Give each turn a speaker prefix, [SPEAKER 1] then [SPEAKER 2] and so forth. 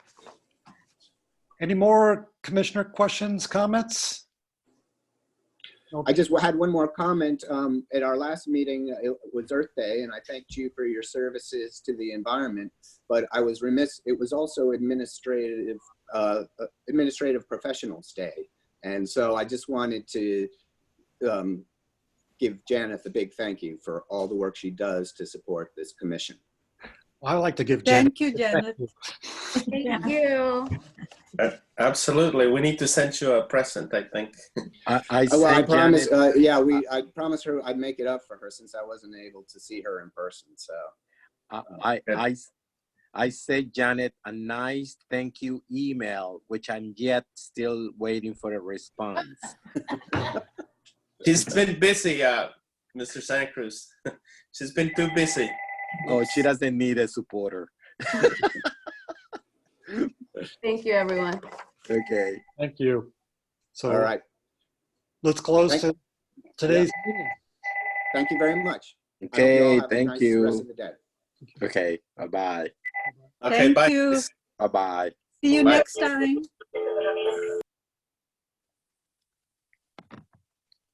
[SPEAKER 1] Any more commissioner questions, comments?
[SPEAKER 2] I just had one more comment. Um, at our last meeting, uh, it was Earth Day, and I thanked you for your services to the environment. But I was remiss, it was also administrative, uh, administrative professionals day. And so I just wanted to, um, give Janet a big thank you for all the work she does to support this commission.
[SPEAKER 1] I like to give Janet.
[SPEAKER 3] Thank you, Janet.
[SPEAKER 4] Thank you.
[SPEAKER 5] Absolutely. We need to send you a present, I think.
[SPEAKER 6] I, I
[SPEAKER 2] Oh, Well, I
[SPEAKER 6] sent
[SPEAKER 2] promise,
[SPEAKER 6] Janet,
[SPEAKER 2] uh, yeah, we, I promised her I'd make it up for her since I wasn't able to see her in person, so. uh,
[SPEAKER 6] I, I, I, I sent Janet a nice thank you email, which I'm yet still waiting for a response.
[SPEAKER 5] She's been busy, uh, Mr. Santa Cruz. She's been too busy.
[SPEAKER 6] oh, she doesn't need a supporter.
[SPEAKER 4] Thank you, everyone.
[SPEAKER 6] Okay.
[SPEAKER 1] Thank you. So
[SPEAKER 2] All right,
[SPEAKER 1] let's close
[SPEAKER 2] Thank-
[SPEAKER 1] to today's meeting.
[SPEAKER 2] thank you very much. I hope you all
[SPEAKER 6] Okay.
[SPEAKER 2] have a
[SPEAKER 6] Thank
[SPEAKER 2] nice Rest
[SPEAKER 6] you.
[SPEAKER 2] of the day.
[SPEAKER 6] Okay. Bye bye.
[SPEAKER 5] Okay,
[SPEAKER 3] Thank
[SPEAKER 5] bye.
[SPEAKER 3] you.
[SPEAKER 6] Bye bye.
[SPEAKER 3] See you
[SPEAKER 5] Bye.
[SPEAKER 3] next time.